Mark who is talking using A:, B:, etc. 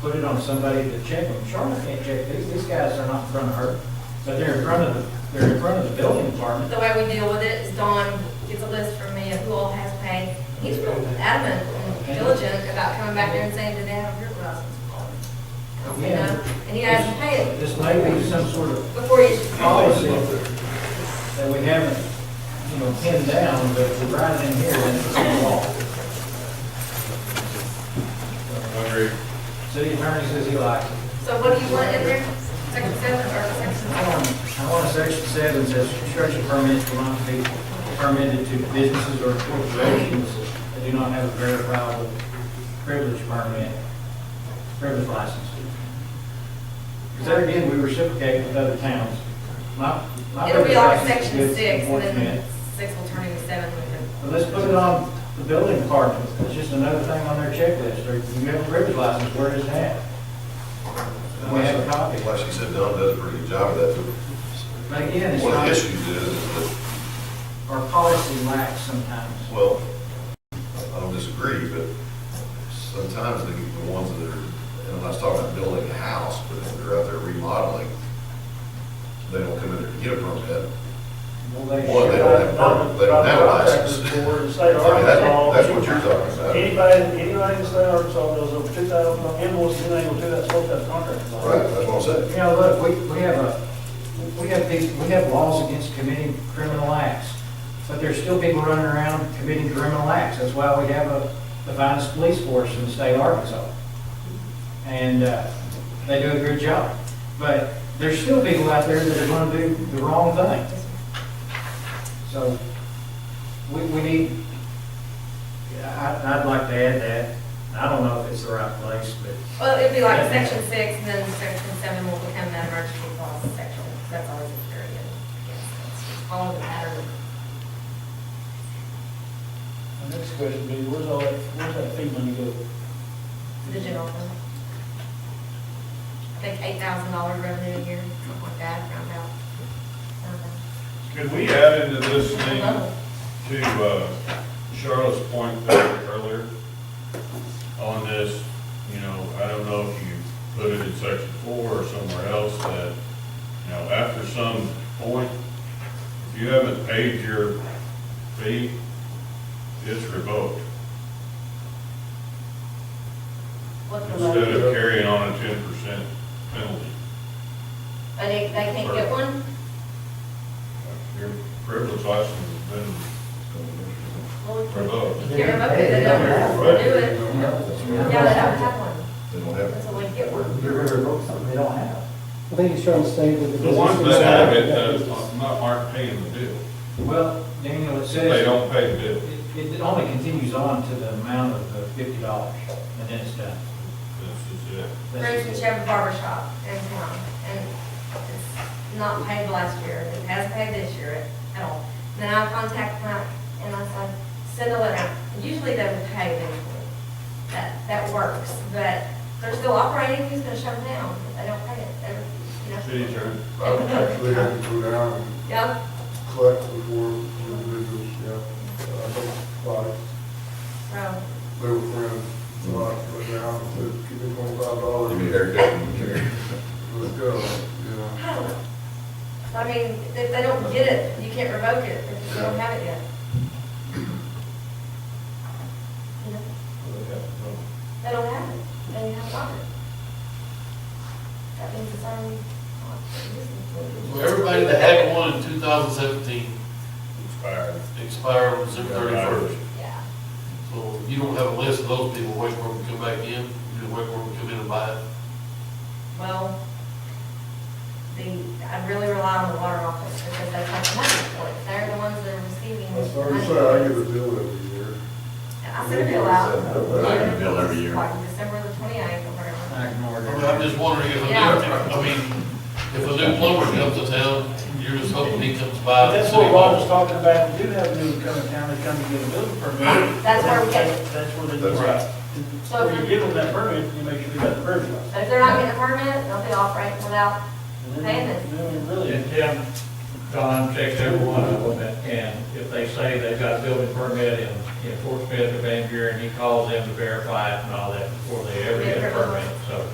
A: put it on somebody to check them. Charlotte can't check these, these guys are not in front of her, but they're in front of the, they're in front of the building department.
B: The way we deal with it is Don gets a list from me of who all has paid. He's real adamant and diligent about coming back there and saying, do they have a drip license? I don't say no. And he hasn't paid it
A: This may be some sort of
B: before you,
A: policy that we haven't, you know, pinned down, but we're right in here and it's in law. City attorney says he likes it.
B: so what do you want in there? Section seven or section?
A: I want, I want a section seven that says construction permits will not be permitted to businesses or corporations that do not have a verifiable privilege permit, privilege license. Because there again, we reciprocate with other towns. My- my
B: It'll be like
A: privilege license is
B: section
A: good for
B: six and then
A: enforcement.
B: six will turn into seven. when we're-
A: But let's put it on the building department, it's just another thing on their checklist, or if you have a privilege license, where is that? We have a copy.
C: Like she said, Don does a pretty good job of that. too.
A: But again, it's
C: One of
A: not,
C: the issues is, is
A: our policy lacks sometimes.
C: that, well, I don't disagree, but sometimes the, the ones that are, and I'm not talking about building a house, but if they're out there remodeling, they don't come in there to get a permit.
A: Well, they
C: Well, they
A: should.
C: don't have permit, they don't have a license.
D: Contractors
C: I mean,
D: board in the state of
C: that-
D: Arkansas.
C: That's what you're talking about.
D: Anybody, anybody in the state of Arkansas knows over two thousand, invoice, anything will do that, supposed to have contractors on.
C: Right, that's what I'm saying.
A: You know, look, we, we have a, we have these, we have laws against committing criminal acts, but there's still people running around committing criminal acts. That's why we have a, the finest police force in the state of Arkansas. And, uh, they do a good job. But there's still people out there that are gonna do the wrong thing. So, we, we need, I, I'd like to add that. I don't know if it's the right place, but
B: Well, it'd be like section six and then section seven will become that emergency clause section. That's always a period. Follow the pattern.
D: The next question be, where's all that, where's that fee money go?
B: The general fund. I think eight thousand dollar revenue a year, something like that, round out.
E: Could we add into this thing
B: Level.
E: to uh, Charlotte's point there earlier on this, you know, I don't know if you put it in section four or somewhere else that, you know, after some point, if you haven't paid your fee, it's revoked.
B: What's the
E: Instead
B: load?
E: of carrying on a ten percent penalty.
B: And they, they can't get one?
E: Your privilege license has been revoked.
B: You're remote, they don't do it. Yeah, they don't have one.
C: They don't have.
B: That's a way to get one.
F: I think it's trying to stay with the
E: The
F: business.
E: ones that have it, uh, not aren't paying the bill.
A: Well, Daniel, it says.
E: They don't pay the bill.
A: It, it only continues on to the amount of the fifty dollars, and then it's done.
E: This is it.
B: For instance, you have a barber shop in town, and it's not paid last year, it hasn't paid this year at all. Then I contact Mike, and I say, send a letter, usually they would pay eventually, that, that works, but they're still operating, who's gonna shut them down if they don't pay it, They're, you know?
E: City attorney.
G: I would actually have to go down and
B: Yeah,
G: collect before individuals, yeah. I don't like,
B: so,
G: they were friends, so I go down and said, give me twenty-five dollars.
C: Give me a haircut and come here.
G: Let's go, yeah.
B: I don't know. I mean, if they don't get it, you can't revoke it, if they don't have it yet. You know? They don't have it, they have water. That means it's already.
H: Well, Everybody that had one in 2017
E: Expired.
H: expired on December 31st.
B: Yeah.
H: So if you don't have a list of those people, wait for them to come back in, you can wait for them to come in and buy it.
B: Well, the, I really rely on the water office because they have the money for it. They're the ones that are receiving.
G: That's what
B: money.
G: I said, I get a bill every year.
B: I send a bill out.
C: I get a bill every year.
B: Like December the twenty-eighth or whatever.
A: I ignored
H: I mean, I'm
A: it.
H: just wondering if a new,
B: Yeah.
H: I mean, if a new plumber comes to town, you're just hoping he comes
D: But
C: Uh,
H: by. the
D: that's
H: city
D: what Rob was
H: hall.
D: talking about, we do have new coming down, they come to get a building permit.
B: That's where we get it.
D: That's where they.
C: That's right.
B: So-
D: When you give them that permit, you make sure they got the permit.
B: But if they're not getting a permit, they'll be operating without
D: And
B: paying
D: then-
B: it.
D: Then we really.
E: Yeah. Don checks every one of them, and- and if they say they've got a building permit in, in Fort Smith or Van Buren, he calls them to verify it and all that before they ever get a permit, so.